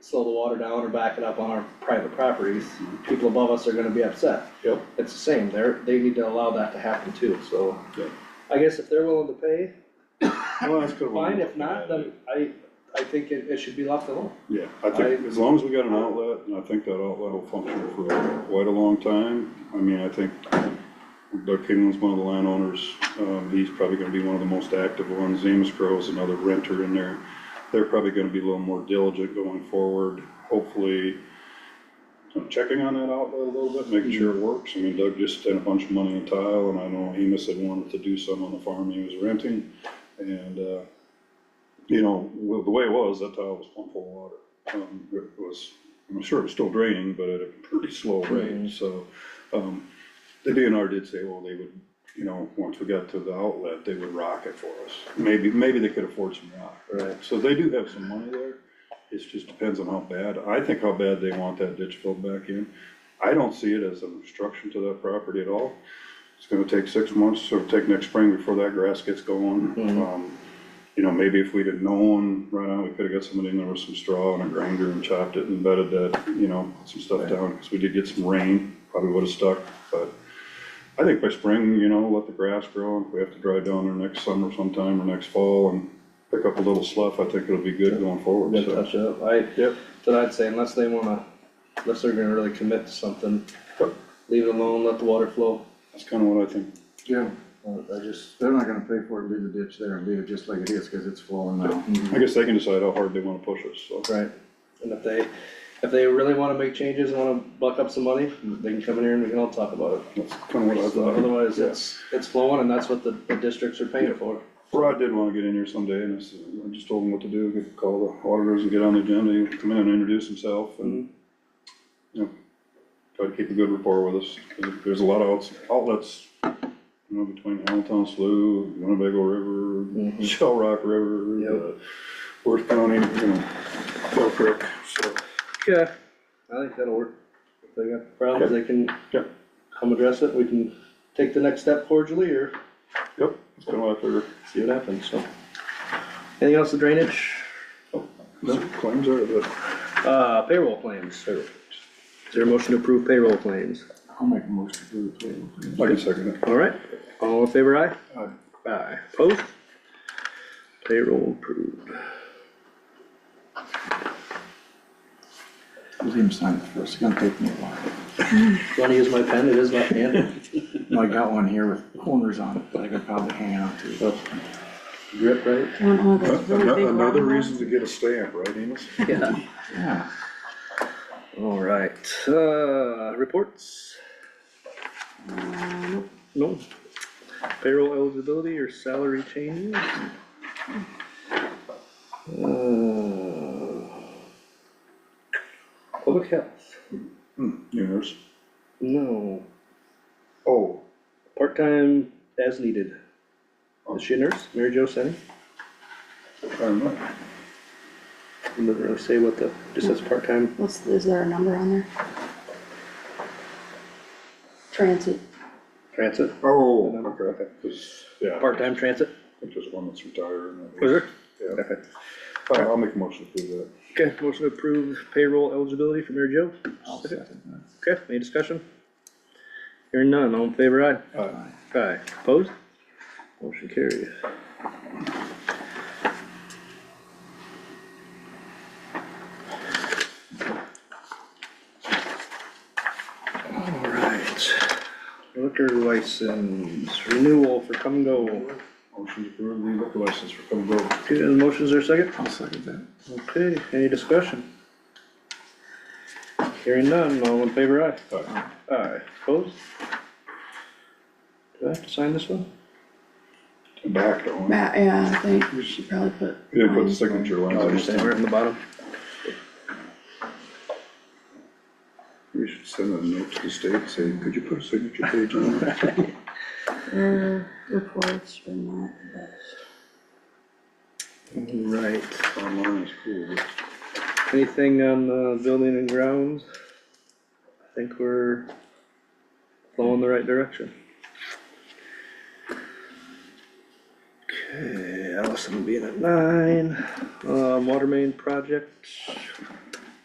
slow the water down or back it up on our private properties, people above us are gonna be upset. Yep. It's the same, they're, they need to allow that to happen too, so. Yep. I guess if they're willing to pay, Well, that's good. fine, if not, then I, I think it, it should be left alone. Yeah, I think as long as we got an outlet, and I think that outlet will function for quite a long time, I mean, I think Doug Kingland's one of the landowners, um, he's probably gonna be one of the most active ones, Amos Crow is another renter in there. They're probably gonna be a little more diligent going forward, hopefully, I'm checking on that outlet a little bit, making sure it works, I mean, Doug just spent a bunch of money on tile, and I know Amos had wanted to do some on the farm he was renting, and, uh, you know, well, the way it was, that tile was plumb full of water. Um, it was, I'm sure it was still draining, but at a pretty slow rate, so, um, the DNR did say, well, they would, you know, once we got to the outlet, they would rock it for us. Maybe, maybe they could afford some rock. Right. So they do have some money there, it just depends on how bad, I think how bad they want that ditch filled back in. I don't see it as an obstruction to that property at all. It's gonna take six months, so it'll take next spring before that grass gets going. Um, you know, maybe if we'd have known right now, we could have got somebody in there with some straw and a grinder and chopped it and bedded that, you know, put some stuff down, because we did get some rain, probably would have stuck, but I think by spring, you know, let the grass grow, and if we have to drive down there next summer sometime or next fall and pick up a little slough, I think it'll be good going forward, Good so. touch up, I, Yep, then I'd say unless they wanna, unless they're gonna really commit to something, Yep. leave it alone, let the water flow. Uh, that's kind of what I think. Yeah, I just, they're not gonna pay for it, leave the ditch there and leave it just like it is, cause it's flowing now. I guess they can decide how hard they want to push us, so. Right, and if they, if they really wanna make changes, wanna buck up some money, they can come in here and we can all talk about it. That's kind of what So I thought. Otherwise, yeah. it's, it's flowing and that's what the, the districts are paying for. Rod did want to get in here someday, and I said, I just told him what to do, get, call the auditors and get on the agenda, he would come in and introduce himself and, you know, try to keep a good rapport with us. There's a lot of outs- outlets, you know, between Allentown Slough, Winnebago Mm-hmm. River, Shell Rock River, uh, Worth County, you know, Bell Creek, so. Yeah. I think that'll work. If they got problems, they can Yep. come address it, we can take the next step cordially or Yep, it's kind of what I figured. see what happens, so. Anything else, the drainage, No Oh, claims are, but uh, payroll claims? Payroll claims. Is there a motion to approve payroll claims? I'll make a motion to approve. I can second it. All right, all in favor, aye? Aye. Aye, post. Payroll approved. Leave him sign it first, it's gonna take me a while. Wanna use my pen, it is left handed. I got one here with corners on it that I could probably hang on to. Grip right? One of those really big Another another round reason to get a stamp, right, Enos? Yeah. Yeah, All right, uh, reports? No. Payroll eligibility or salary changes? Uh, Public health, Hmm. Yours. no, Oh, part-time as needed. Is she a nurse, Mary Jo Senni? I don't know. It Doesn't really say what the, just says part-time, What's, is there a number on there? Transit, transit, Oh, okay, 'cause, yeah, I part-time transit, think there's one that's retired. and that- was there? Yeah, Okay. All right, I'll make a motion to do that. Okay, motion to approve payroll eligibility for Mary Jo? I'll second that. Okay, any discussion? Hearing none, all in favor, aye? Aye. Aye, opposed? Motion carries. Alright, liquor license renewal for come and go. Motion to approve the liquor license for Plum Grove. Okay, the motions are second? I'll second that. Okay, any discussion? Hearing none, all in favor, aye? Aye. Aye, opposed? Do I have to sign this one? Tobacco. huh? Matt, yeah, I think we should probably put. You didn't put the mine. signature lines on this Right time. Oh, in the bottom. We should send a note to the state, saying, could you put a signature page on that? Your reports are not the best. Right, Online is cool, but anything on the building and grounds? I think we're flowing the right direction. Okay, Allison being at nine, um, water main project,